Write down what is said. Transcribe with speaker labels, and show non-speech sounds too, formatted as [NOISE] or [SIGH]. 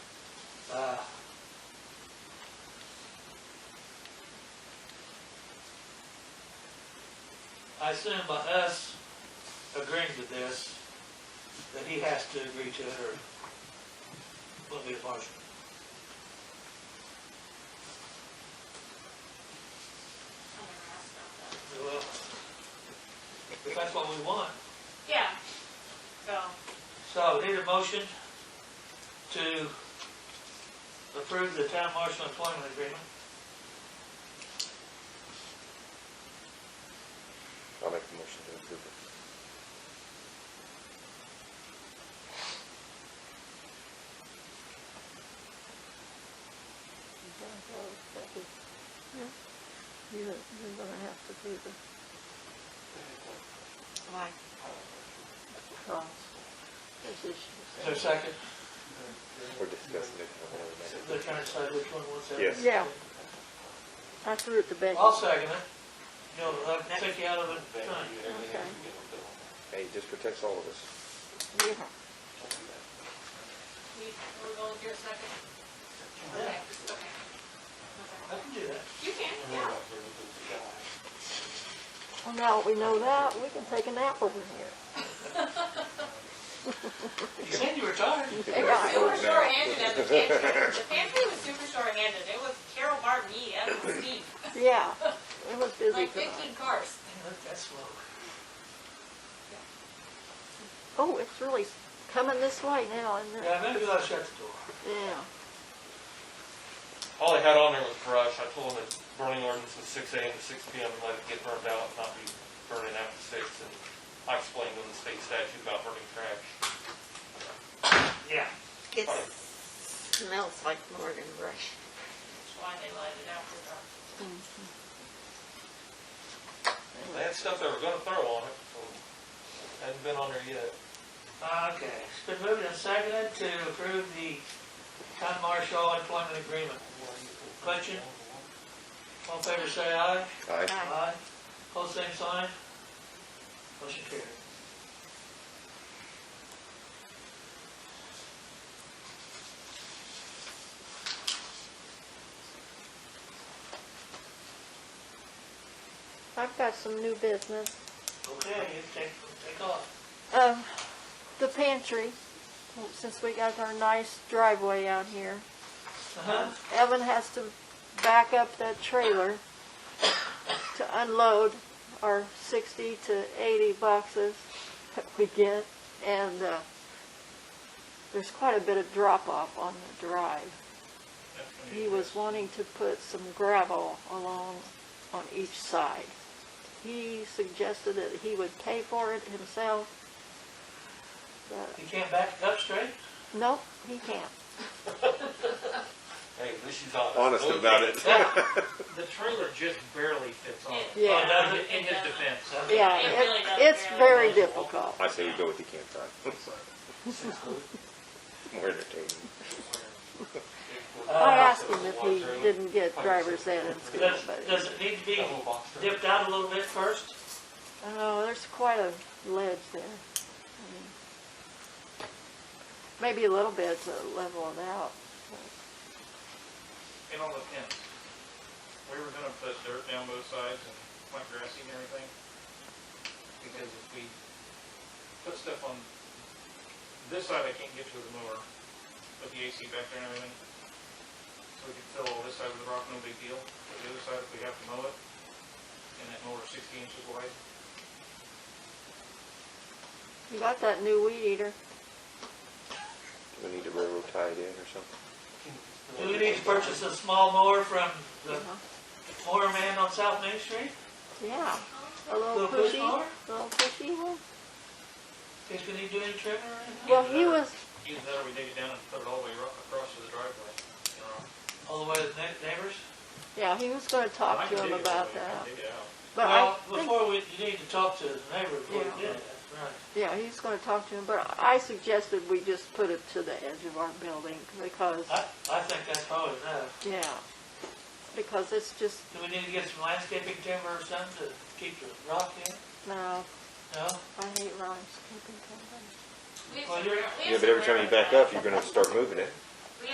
Speaker 1: Uh, I assume by us agreeing to this, that he has to agree to it or wouldn't be a motion. Well, if that's what we want.
Speaker 2: Yeah. So,
Speaker 1: So need a motion to approve the town marshal employment agreement.
Speaker 3: I'll make the motion to approve it.
Speaker 4: You're, you're gonna have to do the
Speaker 2: like,
Speaker 4: cross position.
Speaker 1: Is there a second?
Speaker 3: We're discussing it. I don't know.
Speaker 1: They're trying to decide which one was that.
Speaker 3: Yes.
Speaker 4: Yeah. I threw it to Becky.
Speaker 1: I'll second it. You know, I'll take you out of it.
Speaker 4: Okay,
Speaker 3: Hey, it just protects all of us.
Speaker 4: yeah.
Speaker 2: we, we're going to your second? Okay, okay.
Speaker 1: I can do that.
Speaker 2: You can, yeah.
Speaker 4: Well, now that we know that, we can take a nap over here.
Speaker 1: You said you were tired.
Speaker 2: They were super short-handed at the pantry. The pantry was super short-handed. It was Carol Martin, me, and Steve.
Speaker 4: Yeah, it was busy
Speaker 2: Like
Speaker 4: tonight.
Speaker 2: fifteen cars.
Speaker 1: That's slow.
Speaker 4: Oh, it's really coming this way now, isn't it?
Speaker 1: Yeah, maybe I'll shut the door.
Speaker 4: Yeah.
Speaker 5: All I had on there was brush, I told them that burning ordinance was six AM to six PM, let it get burned out, not be burning after six, and I explained to them the state statute about burning trash.
Speaker 1: Yeah.
Speaker 6: It smells like Morgan brush.
Speaker 2: That's why they light it out for dark.
Speaker 5: They had stuff they were gonna throw on it, so hadn't been on there yet.
Speaker 1: Okay, it's been moved and seconded to approve the town marshal employment agreement. Question? All in favor, say aye.
Speaker 3: Aye.
Speaker 1: Aye. Hold same sign. Motion carried.
Speaker 4: I've got some new business.
Speaker 1: Okay, you take, take off.
Speaker 4: Um, the pantry, since we got our nice driveway out here.
Speaker 1: Uh-huh.
Speaker 4: Evan has to back up that trailer to unload our sixty to eighty boxes that we get, and, uh, there's quite a bit of drop-off on the drive. He was wanting to put some gravel along on each side. He suggested that he would pay for it himself, but,
Speaker 1: You can't back it up straight? [LAUGHS]
Speaker 4: nope, he can't.
Speaker 5: Hey, at least she's honest.
Speaker 3: Honest
Speaker 5: Okay.
Speaker 3: about it.
Speaker 7: The trailer just barely fits on.
Speaker 2: It-
Speaker 4: Yeah.
Speaker 1: Oh, does it?
Speaker 7: In in his defense,
Speaker 1: Okay.
Speaker 4: Yeah,
Speaker 2: It really
Speaker 4: it-
Speaker 2: doesn't
Speaker 4: it's
Speaker 2: really
Speaker 4: very
Speaker 2: matter.
Speaker 4: difficult.
Speaker 3: I say we go with the camp time. More entertaining.
Speaker 4: I asked him if he didn't get driver's ed in school,
Speaker 1: Does,
Speaker 4: but,
Speaker 1: does it need to be
Speaker 5: That little box trailer.
Speaker 1: dipped out a little bit first?
Speaker 4: oh, there's quite a ledge there. I mean, Maybe a little bit to level it out.
Speaker 7: and on the fence. We were gonna put dirt down both sides and plant grassing and everything. Because if we put stuff on this side, I can't get to the mower, put the AC back there and everything. So we could fill all this side with rock, no big deal. But the other side, if we have to mow it, and that mower's sixty inches wide,
Speaker 4: You got that new weed eater?
Speaker 3: Do we need to railroad tie it in or something?
Speaker 1: Do we need to purchase a small mower from the mower man on South Main Street?
Speaker 4: Yeah, a little
Speaker 1: Little push
Speaker 4: pushy,
Speaker 1: mower?
Speaker 4: little pushy one.
Speaker 1: Guess we need to do any trimming or anything?
Speaker 4: Well, he was,
Speaker 7: either that or we dig it down and put it all the way ro- across to the driveway. you know.
Speaker 1: All the way to the neigh- neighbors?
Speaker 4: yeah, he was gonna
Speaker 7: I
Speaker 4: talk
Speaker 7: can
Speaker 4: to him
Speaker 7: dig it all
Speaker 4: about
Speaker 7: the way, I
Speaker 4: that.
Speaker 7: can dig it out.
Speaker 4: But I
Speaker 1: Well,
Speaker 4: think,
Speaker 1: before we, you need to talk to the neighbor before you do
Speaker 4: Yeah.
Speaker 1: that, right?
Speaker 4: yeah, he's gonna talk to him, but I suggested we just put it to the edge of our building because,
Speaker 1: I, I think that's probably enough.
Speaker 4: yeah, because it's just,
Speaker 1: Do we need to get some landscaping timber or something to keep the rock in?
Speaker 4: no,
Speaker 1: No?
Speaker 4: I hate landscaping companies.
Speaker 2: We have
Speaker 1: Well,
Speaker 2: some-
Speaker 1: you're-
Speaker 2: we have
Speaker 3: Yeah, but
Speaker 2: some
Speaker 3: every time you
Speaker 2: railroad
Speaker 3: back up, you're gonna start moving it.